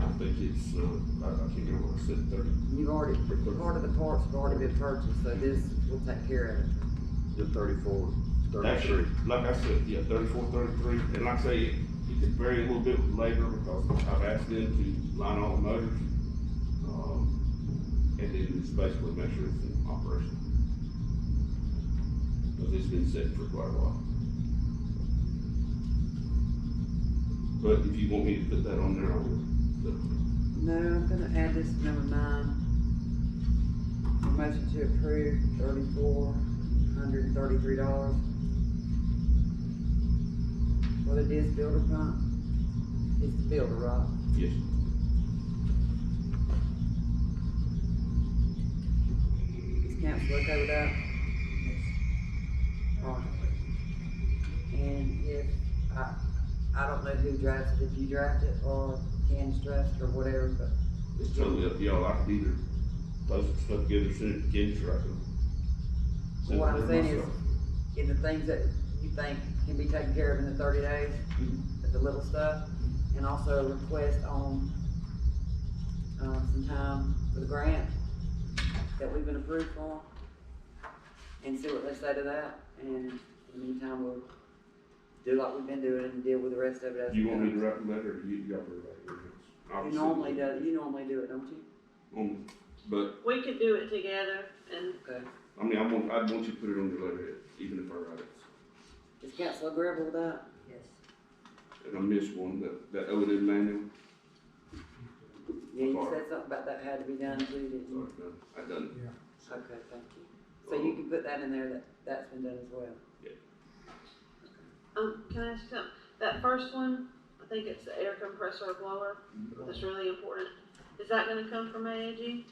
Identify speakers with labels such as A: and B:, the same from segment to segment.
A: I think it's, uh, I, I can't remember what I said, thirty,
B: You've already, part of the parts have already been purchased, so this will take care of it.
C: The thirty-four,
A: Actually,
C: thirty-three.
A: like I said, yeah, thirty-four, thirty-three, and like I say, it it could vary a little bit with labor because I've asked them to line all the motors. Um, and then just basically make sure it's in operation. Cause it's been set for quite a while. But if you want me to put that on there, I will. So,
B: No, I'm gonna add this to number nine. A Motion to approve thirty-four hundred and thirty-three dollars. For the disc builder pump. It's the builder, right?
A: Yes,
B: Is council okay with that? Alright. And if, I, I don't know who drafts it, if you draft it or Candace drafts it or whatever, but
A: it's totally up to y'all. I could either post the stuff together, send it to Kenny, or I can. send it
B: What I'm
A: there
B: saying is-
A: myself.
B: in the things that you think can be taken care of in the thirty days,
A: Mm-hmm.
B: the little stuff, and also a request on, um, some time for the grant that we've been approved for, and see what they say to that, and in the meantime, we'll do like we've been doing and deal with the rest of it as.
A: You
B: it
A: want me to
B: comes.
A: write the letter, or you, you got to write it?
B: You normally do, you normally do it, don't you?
A: Um, But,
D: We could do it together and
B: Okay,
A: I mean, I want, I want you to put it on your letterhead, even if I write it.
B: is council agreeable with that?
E: Yes.
A: And I missed one, that, that O and M manual,
B: Yeah, you
A: Sorry.
B: said something about that had to be done too, didn't you?
A: sorry, no, I done
B: Okay, thank you. So you can put that in there, that, that's been done as well.
D: um, can I ask something? That first one, I think it's the air compressor or blower. That's really important. Is that going to come from AAG?
A: it.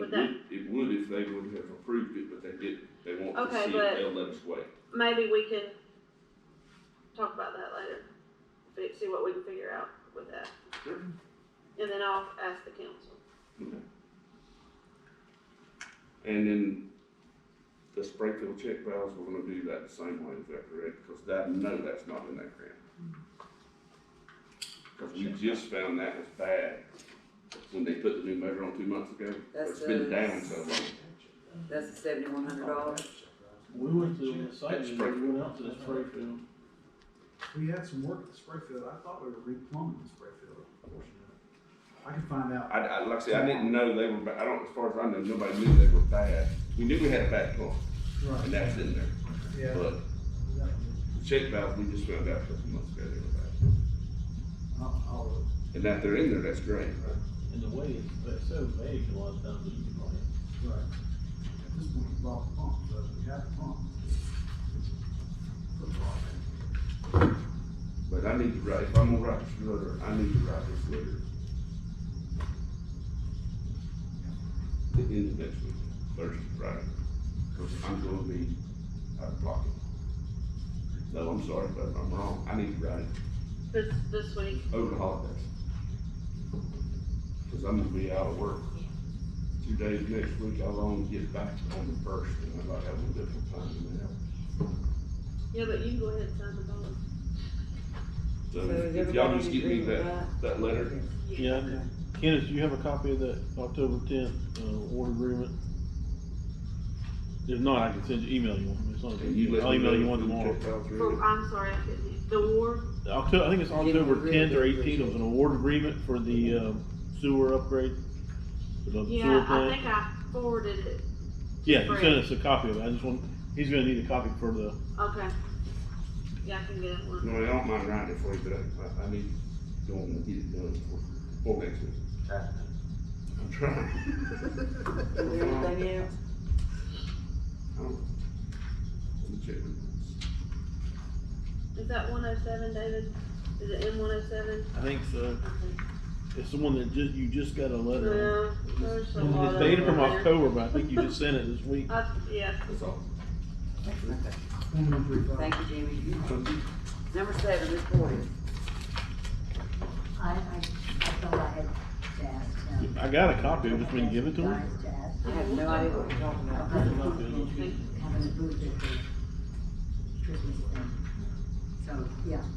D: Would
A: It would, it would if they would have approved it, but they didn't, they want to
D: Okay,
A: see
D: but-
A: if they'll let us wait.
D: Maybe we can talk about that later. Fi- See what we can figure out with that,
A: Sure.
D: and then I'll ask the council.
A: And then the Springfield check valves, we're gonna do that the same way, is that correct? Cause that, no, that's not in that grant. Cause we just found that was bad when they put the new motor on two months ago.
B: That's
A: It's been
B: the-
A: down so long.
B: That's the seventy-one hundred dollars.
F: We went to the site,
A: That's
F: we
A: Springfield.
F: went out to the Sprayfield.
E: We had some work at Sprayfield, I thought we were replumbing the Sprayfield portion of it. I can find out.
A: I, I, like I said, I didn't know they were, ba- I don't, as far as I know, nobody knew they were bad. We knew we had a bad pump and that's in there,
E: Yeah.
A: but the check valve, we just found out a couple months ago they were bad.
E: I'll- I'll look.
A: And that they're in there, that's great.
F: And the way it's, it's so vague a lot of times that you can buy it.
E: Right. At this point, we bought the pump, but we have the pump. Put the pump in.
A: But I need to write, if I'm gonna write this letter, I need to write this letter. The end of next week, Thursday, Friday, because I'm gonna be out of pocket. No, I'm sorry, but I'm wrong, I need to write it
D: This this week,
A: over the holidays. Because I'm gonna be out of work. Two days next week, I'll only get back on the first, and I might have a little bit of time in there.
D: yeah, but you can go ahead and sign the dollar.
A: So if y'all just give me that, that letter,
F: Yeah, I- Kenneth, do you have a copy of that October tenth, uh, order agreement? If not, I can send you, email you one, it's not, a
A: and you
F: big-
A: let
F: I'll
A: me know.
F: email you one
A: when the
F: tomorrow.
A: check comes through.
D: For, I'm sorry, I couldn't. hear. The war.
F: October, I think it's October tenth or eighteenth, it was an award agreement for the, um, sewer upgrade. for the sewer
D: Yeah, I
F: plant.
D: think I forwarded it.
F: Yeah, you sent us a copy of it, I just want, he's gonna need a copy for the,
D: Okay. Yeah, I can get one.
A: No, I don't mind writing it for you, but I, I, I need, don't want to get it done for, for next week. I'm trying.
B: Is there anything else?
A: I don't- Um, Let me check. it.
D: Is that one oh seven, David? Is it M one oh seven?
F: I think so, it's the one that ju- you just got a letter.
D: Well, there's a
F: on.
D: lot
F: It's
D: of.
F: dated from
D: them there.
F: October, but I think you just sent it this week.
D: Uh, yeah,
A: That's all.
E: One, one, three, five.
B: Thank you, Jimmy. Number seven, Ms. Porter.
G: I, I, I thought I had to ask him.
F: I got a copy, I've just been given to him.
G: Guys to ask.
B: I have no idea what you're talking about.
G: Having a booth at the Christmas thing. So, yeah.